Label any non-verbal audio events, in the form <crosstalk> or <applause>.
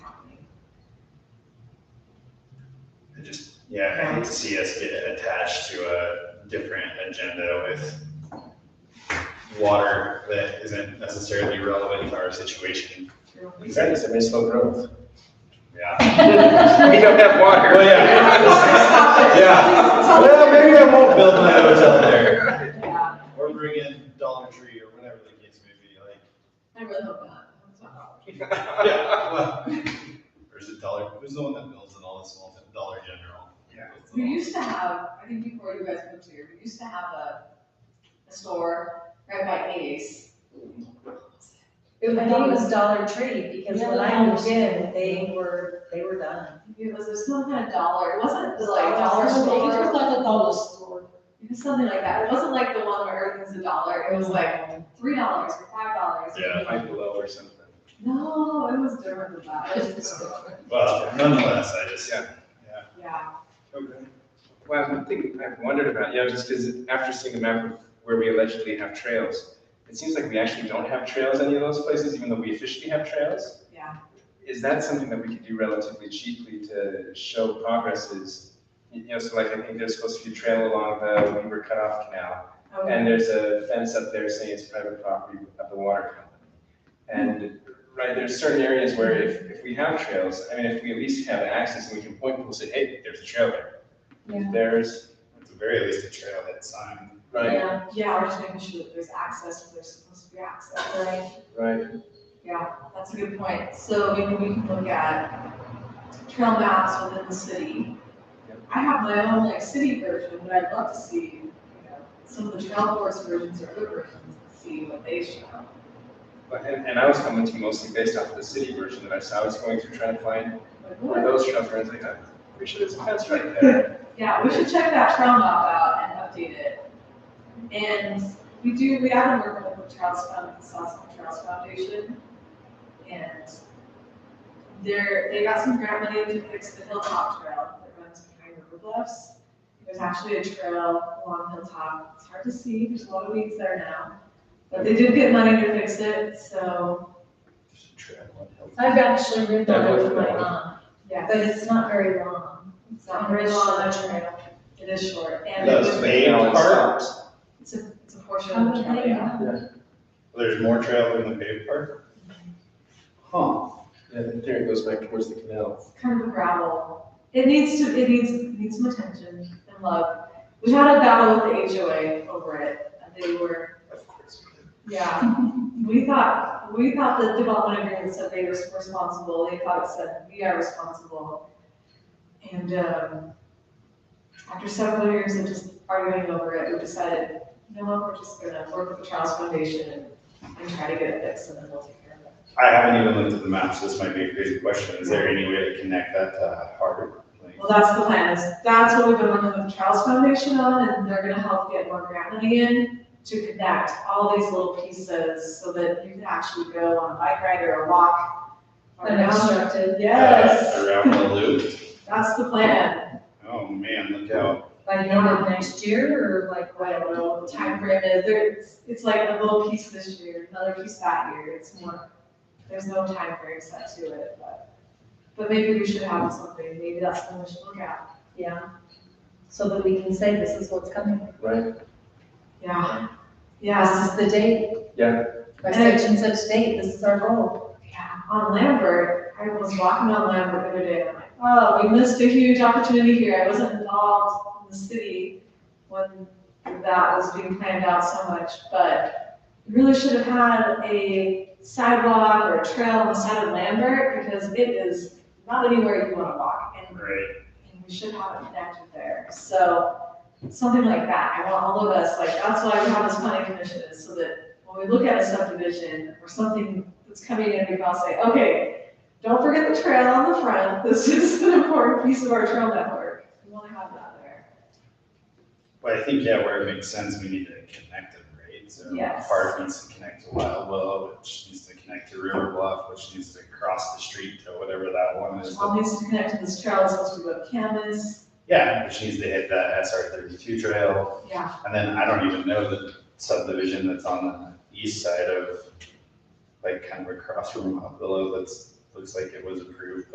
Yeah, I hate to see us get attached to a different agenda with water that isn't necessarily relevant to our situation. That is a misspelled growth. Yeah. We don't have water. Well, yeah. Yeah. Well, maybe I won't build my hotel there. Yeah, Or bring in Dollar Tree or whatever the case may be, like. I really hope not. That's not all. Yeah. well, Or is it Dollar, who's the one that builds in all the small, town- Dollar General? Yeah. Builds it We all. used to have, I think before you guys moved here, we used to have a, a store right by Ace. It was, I think it was Dollar Tree, because when I moved in, they were, they were done. it was, it was some kind of dollar, it wasn't It was like dollar store. It was like a dollar store. It was something like that, it wasn't like the one where everything's a dollar, it was like three dollars or five dollars. Yeah. Five below or something. No, it was different than that, It was- Well, nonetheless, I just, Yeah. yeah, Okay. Well, one thing I've wondered about, you know, just because after seeing the map of where we allegedly have trails, it seems like we actually don't have trails in any of those places, even though we officially have trails. yeah. Is that something that we could do relatively cheaply to show progress is, you know, so like I think there's supposed to be a trail along the Weaver Cutoff Canal. Okay. And there's a fence up there saying it's private property of the water company. And, right, there's certain areas where if, if we have trails, I mean, if we at least have access and we can point people, say, hey, there's a trail there. Yeah. There's, at the very least, a trailhead sign. right, Yeah, yeah, we're just making sure that there's access, where there's supposed to be access. Right. right, Yeah, that's a good point. So maybe we can look at trail maps within the city. Yep. I have my own like city version, but I'd love to see, you know, some of the trail force versions or other versions, and see what they show. But- and, and I was commenting mostly based off of the city version that I saw, I was going through trying to find Like, one what- of those trails, and I was like, I'm pretty sure there's a fence right there. Yeah, we should check that trail map out and update it. And we do, we have been working with the Trails Fund, the Sossaman Trails Foundation. And they're, they got some grant money to fix the Hilltop Trail that runs behind River Bluffs. There's actually a trail along Hilltop, it's hard to see, there's a lot of weeds there now. But they did get money to fix it, so, There's a trail on Hill- I've actually ridden That on it was with my long. mom, yeah, but it's not very long. it's not very long, It's a trail. it is short. And Those it's a- paved Yeah. parts, it's a, it's a portion of the trail, yeah. there's more trail than the paved part? Huh. Yeah, there it goes back towards the canal. kind of gravel. It needs to, it needs, needs some attention and love. We had a battle with the HOA over it. They were, Of course. we did. yeah, we thought, we thought the development agreement said they were responsible. They thought it said we are responsible. And, um, after several years of just arguing over it, we decided, you know what, we're just gonna work with the Charles Foundation and, and try to get it fixed and then we'll take care of it. I haven't even looked at the map, so this might be a crazy question. Is there any way to connect that to Harvard? Like, uh, Well, that's the plan, is that's what we've been working with the Charles Foundation on, and they're gonna help get more grant money in to connect all these little pieces so that you can actually go on a bike ride or a walk. around. Unobstructed. Yes, Around the loop? that's the plan. Oh, man, look out. By the end of next year, or like, I what? don't know what the timeframe is, there, it's, it's like a little piece this year, another piece that year, it's more, there's no timeframe set to it, but. But maybe we should have something, maybe that's something we should look at. Yeah. So that we can say this is what's coming. Right, Yeah, yeah, This is the date. Yeah. By such and such date, this is our goal. Yeah, on Lambert, I was walking on Lambert the other day, and I'm like, oh, we missed a huge opportunity here, I wasn't involved in the city when that was being planned out so much, but we really should have had a sidewalk or a trail on the side of Lambert, because it is not anywhere you wanna walk, and Right. and we should have it connected there. So something like that. I want all of us, like, that's why we have this planning commission is so that when we look at a subdivision or something that's coming in, we can all say, okay, don't forget the trail on the front. This <laughs> is an important piece of our trail network. We want to have that there. But I think, yeah, where it makes sense, we need to connect them, right? So Yes. Harvard needs to connect to Wild Willow, which needs to connect to River Bluff, which needs to cross the street to whatever that one is. All needs to connect to this trail, it's supposed to go to Canvas. Yeah, which needs to hit that SR thirty-two trail. Yeah, And then I don't even know the subdivision that's on the east side of, like, kind of across from Mount Willow that's, looks like it was approved,